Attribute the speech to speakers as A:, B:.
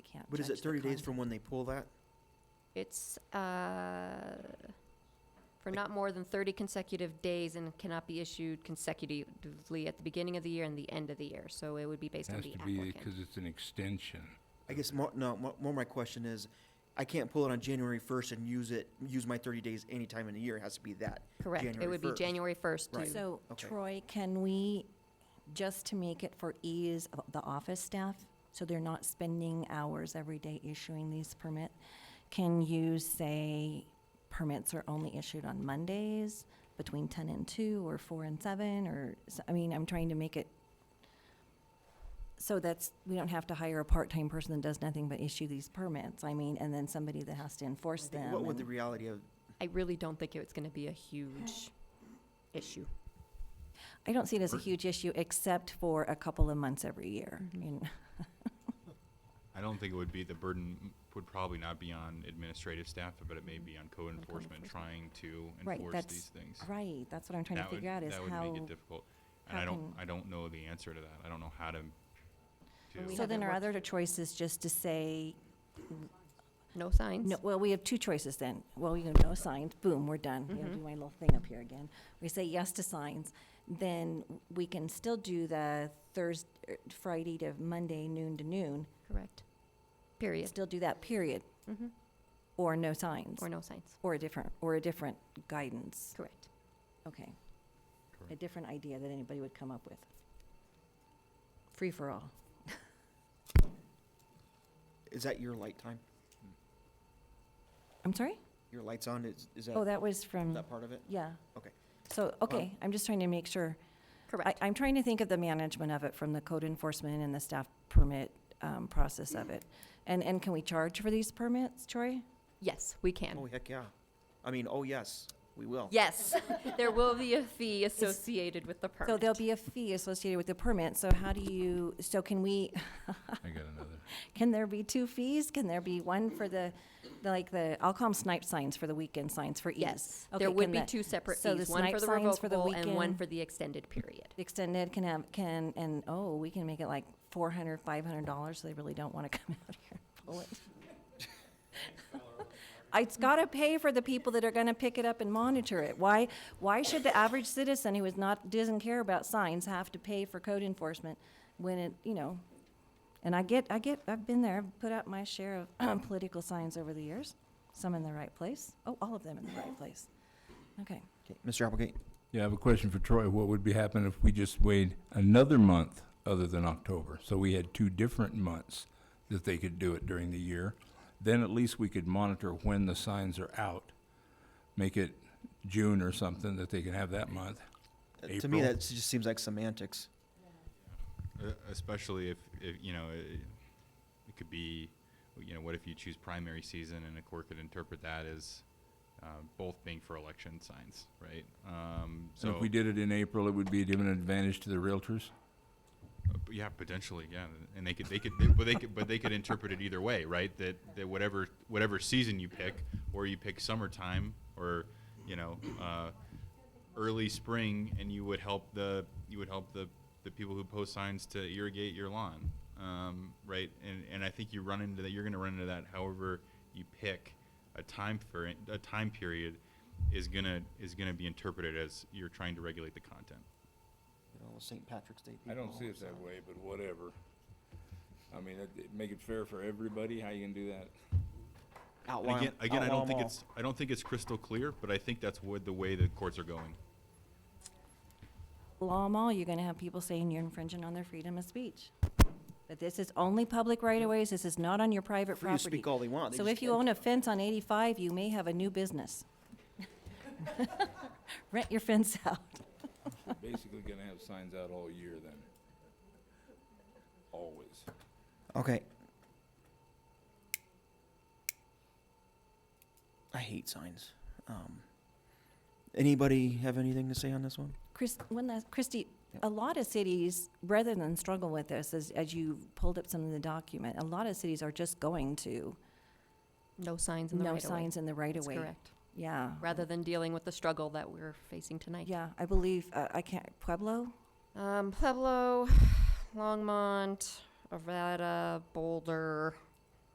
A: What is it,
B: judge the
A: 30 days
B: con-
A: from when they pull that?
B: It's, uh, for not more than 30 consecutive days and cannot be issued consecutively at the beginning of the year and the end of the year. So it would be based on
C: Has
B: the
C: to be,
B: applicant.
C: because it's an extension.
A: I guess more, no, mo- more my question is, I can't pull it on January 1st and use it, use my 30 days any time in the year. It has to be that.
B: Correct. It would be
A: 1st.
B: January 1st.
A: Right.
B: to-
D: So
A: Okay.
D: Troy, can we, just to make it for ease of the office staff, so they're not spending hours every day issuing these permits, can you say permits are only issued on Mondays between ten and two, or four and seven, or, s- I mean, I'm trying to make it so that's, we don't have to hire a part-time person that does nothing but issue these permits, I mean, and then somebody that has to enforce
A: I think-
D: them.
A: What would
D: and-
A: the reality of,
B: I really don't think it's going to be a huge issue.
D: I don't see it as a
C: Or-
D: huge issue, except for a couple of months every year.
B: Mhm.
D: And-
E: I don't think it would be, the burden m- would probably not be on administrative staff, but it may be on code enforcement trying to
D: Right,
E: enforce
D: that's
E: these things.
D: Right, that's what I'm trying to
E: That would-
D: figure out, is
E: That
D: how,
E: would make it difficult. And I don't,
D: how can-
E: I don't know the answer to that. I don't know how to.
B: Well, we
E: to-
D: so then
B: haven't
D: our
B: worked-
D: other choice is just to say,
B: No signs?
D: no, well, we have two choices then. Well, you know, no signs, boom, we're done. You know, do my little thing up here again. We say yes to signs, then we can still do the Thursday, Friday to Monday, noon to noon,
B: Correct. Period.
D: still do that period,
B: Mhm.
D: or no signs,
B: Or no signs.
D: or a different, or a different guidance.
B: Correct.
D: Okay. A
E: Correct.
D: different idea that anybody would come up with. Free for all.
A: is that your light time?
D: I'm sorry?
A: Your light's on, is, is
D: Oh,
A: that,
D: that was from,
A: that part of it?
D: yeah.
A: Okay. Um,
D: So, okay, I'm just trying to make sure. I,
B: Correct.
D: I'm trying to think of the management of it from the code enforcement and the staff permit um, process of it. And, and can we charge for these permits, Troy?
B: Yes, we can.
A: Oh, heck, yeah. I mean, oh, yes, we will.
B: Yes, there will be a fee associated with the permit.
D: So there'll be a fee associated with the permit, so how do you, so can we,
C: I got another.
D: can there be two fees? Can there be one for the, the, like the, I'll call them snipe signs for the weekend signs for ease?
B: Yes,
D: Okay,
B: there would
D: can
B: be
D: the-
B: two separate
D: so the
B: fees, one
D: snipe
B: for the
D: signs for the
B: revocable and one
D: weekend-
B: for the extended period.
D: the extended can have, can, and, oh, we can make it like four hundred, five hundred dollars, so they really don't wanna come out here and pull it. It's gotta pay for the people that are gonna pick it up and monitor it. Why, why should the average citizen who is not, doesn't care about signs have to pay for code enforcement when it, you know? And I get, I get, I've been there, I've put out my share of political signs over the years, some in the right place. Oh, all of them in the right place. Okay.
A: Okay, Mr. Applegate?
C: Yeah, I have a question for Troy. What would be happening if we just waited another month other than October? So we had two different months that they could do it during the year. Then at least we could monitor when the signs are out. Make it June or something that they can have that month.
A: Uh, To me,
C: April.
A: that just seems like semantics.
E: Uh, Especially if, if, you know, it it could be, you know, what if you choose primary season and a court could interpret that as uh, both being for election signs, right? Um,
C: So
E: So.
C: if we did it in April, it would be given an advantage to the realtors?
E: Uh, p- Yeah, potentially, yeah, and they could, they could, they- but they could, but they could interpret it either way, right? That, that whatever, whatever season you pick, or you pick summertime, or, you know, uh, early spring, and you would help the, you would help the, the people who post signs to irrigate your lawn, um, right? And, and I think you run into that, you're gonna run into that however you pick a time for, it- a time period is gonna, is gonna be interpreted as you're trying to regulate the content.
A: You know, St. Patrick's Day.
C: I don't
A: people,
C: see it that
A: so-
C: way, but whatever. I mean, it- it- make it fair for everybody, how you can do that?
A: Outlaw
E: And
A: 'em-
E: again, again, I
A: outlaw
E: don't
A: 'em
E: think
A: all.
E: it's, I don't think it's crystal clear, but I think that's what the way the courts are going.
D: law them all, you're gonna have people saying you're infringing on their freedom of speech. But this is only public right-of-ways, this is not on your private
A: Free to
D: property.
A: speak all they want. they
D: So
A: just
D: if you
A: can't-
D: own a fence on eighty-five, you may have a new business. Rent your fence out.
C: Basically gonna have signs out all year then. Always.
A: Okay. I hate signs. Um, anybody have anything to say on this one?
D: Chris, one last, Christie,
A: Yep.
D: a lot of cities, rather than struggle with this, as, as you pulled up some of the document, a lot of cities are just going to
B: No signs in the right
D: no
B: of way.
D: signs in the
B: That's
D: right-of-way.
B: correct.
D: Yeah.
B: Rather than dealing with the struggle that we're facing tonight.
D: Yeah, I believe, uh, I can't, Pueblo?
B: Um, Pueblo, Longmont, Arvada, Boulder,